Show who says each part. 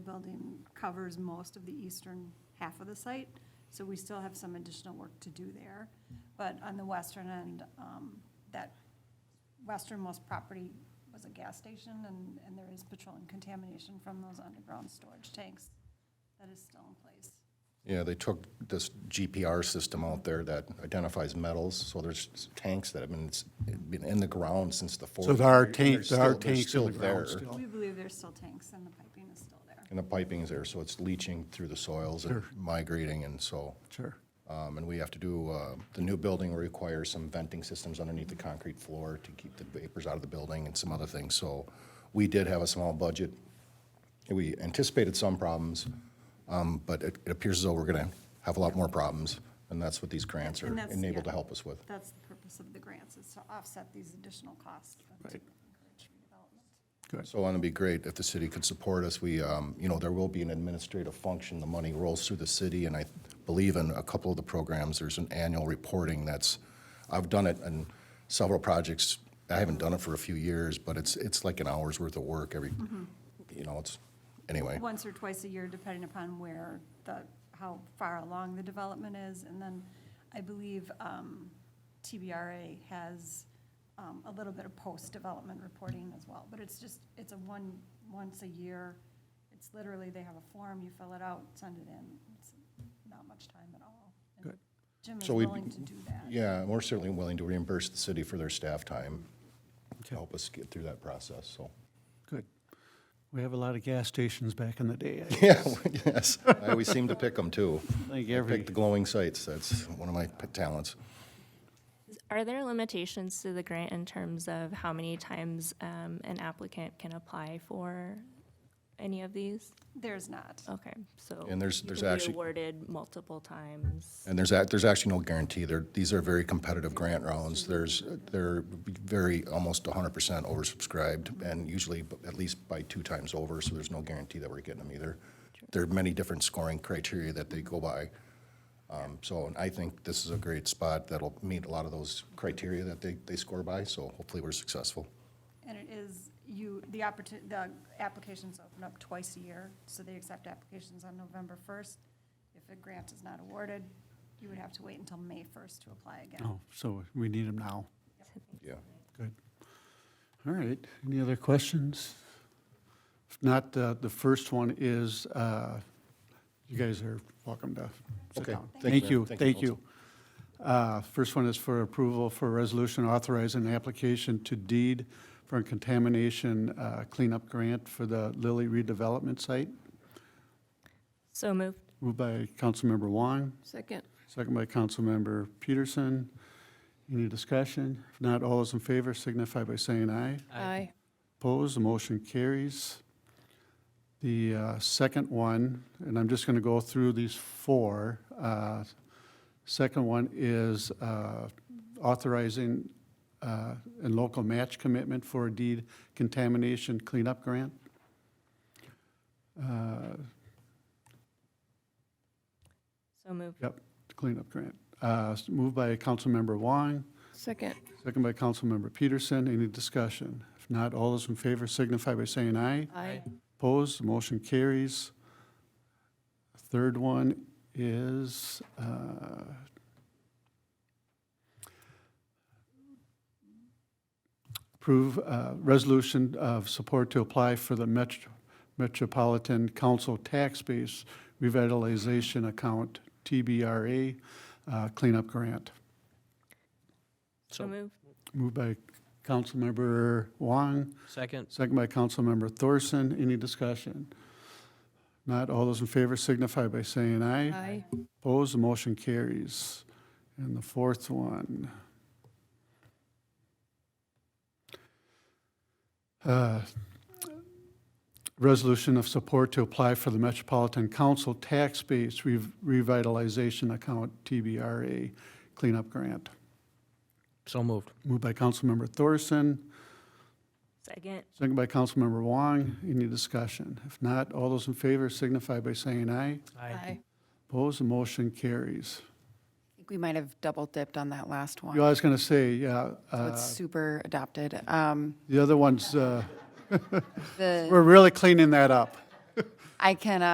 Speaker 1: building covers most of the eastern half of the site, so we still have some additional work to do there. But on the western end, um, that westernmost property was a gas station, and, and there is petroleum contamination from those underground storage tanks that is still in place.
Speaker 2: Yeah, they took this GPR system out there that identifies metals, so there's tanks that have been, it's been in the ground since the 40s.
Speaker 3: So there are
Speaker 2: They're
Speaker 3: tanks, there are
Speaker 2: still- they're
Speaker 3: tanks in the
Speaker 2: still
Speaker 3: ground
Speaker 2: there,
Speaker 3: still.
Speaker 1: We believe there's still tanks, and the piping is still there.
Speaker 2: And the piping's there, so it's leaching through the soils and migrating, and so.
Speaker 3: Sure.
Speaker 2: Um, and we have to do, uh, the new building requires some venting systems underneath the concrete floor to keep the vapors out of the building and some other things. So we did have a small budget. We anticipated some problems, um, but it, it appears as though we're gonna have a lot more problems, and that's what these grants are
Speaker 1: And that's-
Speaker 2: enabled to
Speaker 1: yeah.
Speaker 2: help us with.
Speaker 1: That's the purpose of the grants, is to offset these additional costs. and to
Speaker 3: Right.
Speaker 1: encourage redevelopment.
Speaker 2: So and it'd be great if the city could support us. We, um, you know, there will be an administrative function. The money rolls through the city, and I believe in a couple of the programs, there's an annual reporting that's, I've done it in several projects. I haven't done it for a few years, but it's, it's like an hour's worth of work every, you know, it's, anyway.
Speaker 1: Once or twice a year, depending upon where the, how far along the development is. And then I believe um, TBRA has um, a little bit of post-development reporting as well. But it's just, it's a one, once a year, it's literally, they have a form, you fill it out, send it in. It's not much time at all. And
Speaker 3: Good.
Speaker 1: Jim is
Speaker 2: So we-
Speaker 1: willing to do that.
Speaker 2: Yeah, and we're certainly willing to reimburse the city for their staff time to help us get through that process, so.
Speaker 3: Good. We have a lot of gas stations back in the day. I
Speaker 2: Yeah, yes, I always seem to pick them, too.
Speaker 3: think
Speaker 2: I
Speaker 3: every,
Speaker 2: Pick the glowing sites, that's one of my p- talents.
Speaker 4: Are there limitations to the grant in terms of how many times um, an applicant can apply for any of these?
Speaker 1: There's not.
Speaker 4: Okay, so.
Speaker 2: And there's-
Speaker 4: you
Speaker 2: there's
Speaker 4: can be
Speaker 2: actually-
Speaker 4: Awarded multiple times.
Speaker 2: And there's, ac- there's actually no guarantee. There, these are very competitive grant rounds. There's, they're very, almost hundred percent oversubscribed and usually b- at least by two times over, so there's no guarantee that we're getting them either. There are many different scoring criteria that they go by. Um, so, and I think this is a great spot that'll meet a lot of those criteria that they, they score by, so hopefully we're successful.
Speaker 1: And it is, you, the opportunity, the applications open up twice a year, so they accept applications on November 1st. If a grant is not awarded, you would have to wait until May 1st to apply again.
Speaker 3: oh, so we need them now.
Speaker 2: Yeah.
Speaker 3: Good. All right. Any other questions? If not, uh, the first one is, uh, you guys are welcome to sit
Speaker 2: Okay.
Speaker 3: down.
Speaker 2: Thank
Speaker 3: Thank
Speaker 2: you,
Speaker 3: you,
Speaker 2: ma'am.
Speaker 3: thank you. Uh, First one is for approval for a resolution authorizing an application to deed for a contamination uh, cleanup grant for the Lilly redevelopment site.
Speaker 4: So moved.
Speaker 3: Moved by Councilmember Wong,
Speaker 5: Second.
Speaker 3: second by Councilmember Peterson. Any discussion? If not, all those in favor signify by saying aye.
Speaker 5: Aye.
Speaker 3: Opposed, the motion carries. The uh, second one, and I'm just going to go through these four. uh, Second one is uh, authorizing uh, a local match commitment for a deed contamination cleanup grant. Uh,
Speaker 4: So moved.
Speaker 3: Yep, cleanup grant. Uh, s- Moved by Councilmember Wong,
Speaker 5: Second.
Speaker 3: second by Councilmember Peterson. Any discussion? If not, all those in favor signify by saying aye.
Speaker 5: Aye.
Speaker 3: Opposed, the motion carries. Third one is uh, approve uh, resolution of support to apply for the Met- Metropolitan Council Tax Base Revitalization Account, TBRA, uh, cleanup grant.
Speaker 4: So moved.
Speaker 3: Moved by Councilmember Wong,
Speaker 6: Second.
Speaker 3: Second by Councilmember Thorson. Any discussion? Not all those in favor signify by saying aye.
Speaker 5: Aye.
Speaker 3: Opposed, the motion carries. And the fourth one. Uh, Resolution of support to apply for the Metropolitan Council Tax Base Rev- Revitalization Account, TBRA Cleanup Grant.
Speaker 6: So moved.
Speaker 3: Moved by Councilmember Thorson.
Speaker 4: Second.
Speaker 3: Second by Councilmember Wong. Any discussion? If not, all those in favor signify by saying aye.
Speaker 5: Aye.
Speaker 3: Opposed, the motion carries.
Speaker 7: I think we might have double dipped on that last
Speaker 3: You
Speaker 7: one.
Speaker 3: know, I was going to say, yeah,
Speaker 7: So
Speaker 3: uh,
Speaker 7: it's super adopted. Um,
Speaker 3: the other ones, uh,
Speaker 7: The,
Speaker 3: we're really cleaning that up.
Speaker 7: I can, uh,